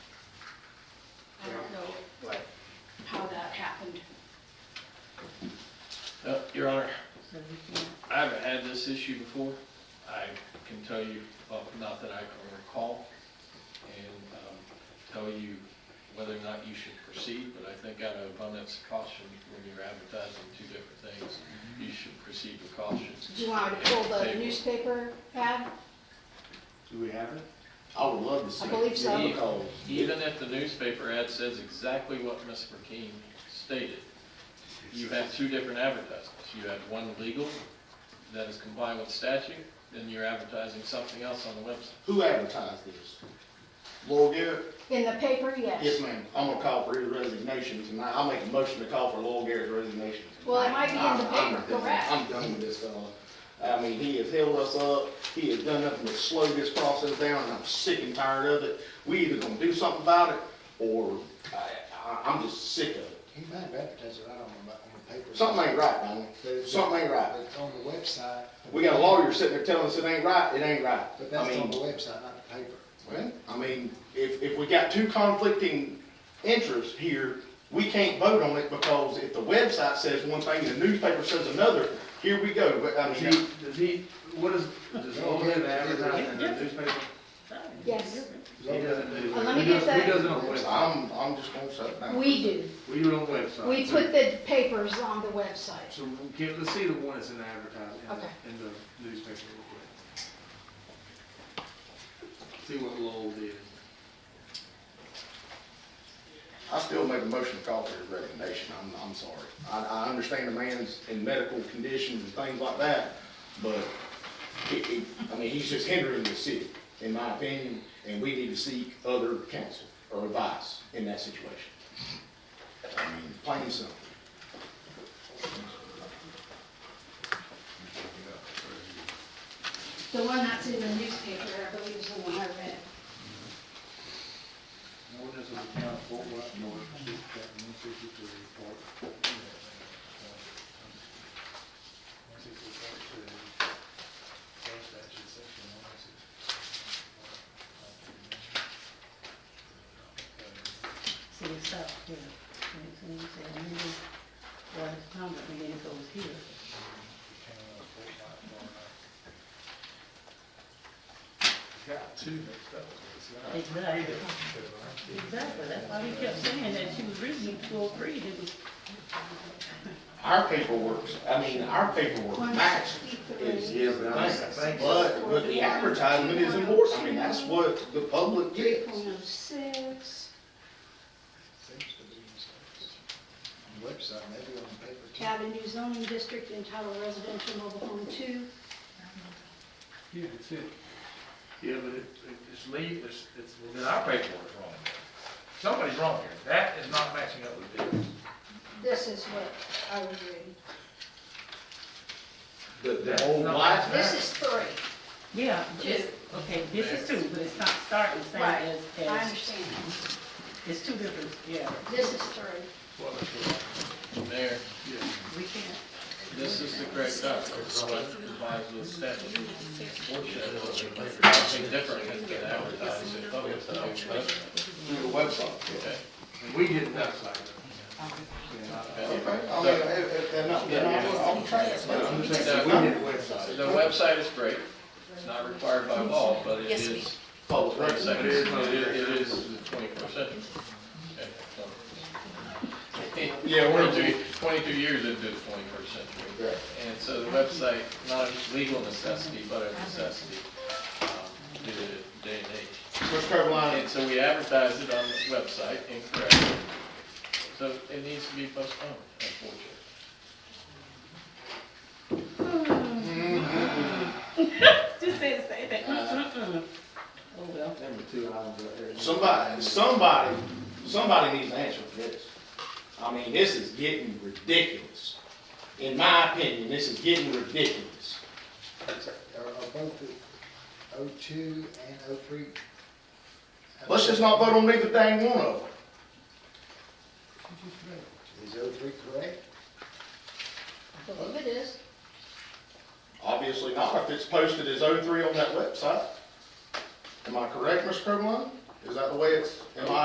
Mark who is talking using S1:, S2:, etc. S1: I haven't had this issue before. I can tell you, well, not that I can recall, and um, tell you whether or not you should proceed, but I think out of abundance of caution, when you're advertising two different things, you should proceed with caution.
S2: Do you want me to pull the newspaper ad?
S3: Do we have it? I would love to see.
S2: I
S3: it.
S2: believe so.
S3: Yeah, because-
S1: Even if the newspaper ad says exactly what Ms. McKean stated, you have two different advertisements. You have one legal that is compliant with statute, then you're advertising something else on the website.
S3: Who advertised this? Laurel Garrett?
S2: In the paper,
S3: Yes,
S2: yes.
S3: ma'am. I'm gonna call for his resignation tonight. I'll make a motion to call for Laurel Garrett's resignation.
S2: Well, it might be in the
S3: I'm- I'm
S2: paper,
S3: done.
S2: correct.
S3: I'm done with this fella. I mean, he has held us up. He has done nothing but slow this process down, and I'm sick and tired of it. We either gonna do something about it, or I, I, I'm just sick of it.
S4: He might have advertised it right on the, on the paper.
S3: Something ain't right, man.
S4: But it's-
S3: Something ain't right.
S4: But it's on the website.
S3: We got a lawyer sitting there telling us it ain't right, it ain't right.
S4: But
S3: I
S4: that's
S3: mean,
S4: on the website, not the paper.
S3: Well, I mean, if, if we got two conflicting interests here, we can't vote on it because if the website says one thing and the newspaper says another, here we go. But I
S5: Does
S3: mean,
S5: he, does he, what is, does Ole have advertising in the newspaper?
S2: Yes.
S5: He doesn't do.
S2: Well, let me
S5: He does-
S2: get that.
S5: He doesn't on the website.
S3: I'm, I'm just gonna shut down.
S2: We do.
S5: We do it on the website.
S2: We put the papers on the website.
S5: So, can, let's see the one that's in advertising, in
S2: Okay.
S5: the- in the newspaper real quick. See what Lowell did.
S3: I still make a motion to call for his recommendation. I'm, I'm sorry. I, I understand the man's in medical condition and things like that, but he, he, I mean, he's just hindering the city, in my opinion, and we need to seek other counsel or advice in that situation. I mean, plain and simple.
S2: The one that's in the newspaper, I believe is the one I read.
S4: An ordinance of the town of Fort Worth, North, District one sixty-three, Fort. One sixty-four, two, state statute, section one sixty-four.
S6: See, it stops here. And it's, and it's, and it's, well, it's common, and then it goes here. Exactly. Exactly, that's why we kept saying that she was reading two oh three, it was,
S3: Our paperwork, I mean, our paperwork matches. Is, is the thing. But, but the advertisement is important. I mean, that's what the public
S2: Three
S3: gets.
S2: point oh six.
S4: Seems to be in service. On the website, maybe on the paper too.
S2: Avenue zoning district entitled residential mobile home two.
S5: Yeah, that's it. Yeah, but it, it- it's leave, it's, it's, well, then our paperwork's wrong.
S7: Somebody's wrong here. That is not matching up with this.
S2: This is what I was reading.
S3: The, the whole life.
S2: This is three.
S6: yeah, this, okay, this is two, but it's not starting the same
S2: Right.
S6: as,
S2: I
S6: as,
S2: understand.
S6: it's two different, yeah.
S2: This is three.
S5: Well, that's wrong.
S1: Mayor,
S6: We can't,
S1: this is the correct document, so it complies with statute. Unfortunately, something different has been advertised in public, so it's not-
S3: Through the website.
S1: okay.
S5: And we didn't website it.
S3: Okay, I mean, if, if they're not, they're not, I'll try it.
S5: But I'm just saying, we
S3: No.
S5: did the website.
S1: The website is great, it's not required by law, but it
S8: Yes, we-
S1: is
S3: Public
S1: Right,
S3: record.
S1: second, it is, it is the twenty-first century. Okay, so.
S3: Yeah, we're-
S1: 22 22 years into the twenty-first century.
S3: Yeah.
S1: And so the website, not a legal necessity, but a necessity, um, due to the day and age.
S3: North Carolina,
S1: And so we advertise it on the website incorrectly, so it needs to be postponed, unfortunately.
S6: just say the same thing. Mm-mm-mm. Oh, well.
S5: Number two, I was, uh,
S3: somebody, somebody, somebody needs to answer for this. I mean, this is getting ridiculous. In my opinion, this is getting ridiculous.
S4: Are, are both the O two and O three?
S3: Let's just not vote on neither dang one of them.
S4: Is O three correct?
S2: I believe it is.
S3: Obviously not, if it's posted as O3 on that website. Am I correct, Mr. Carolina? Is that the way it's, am I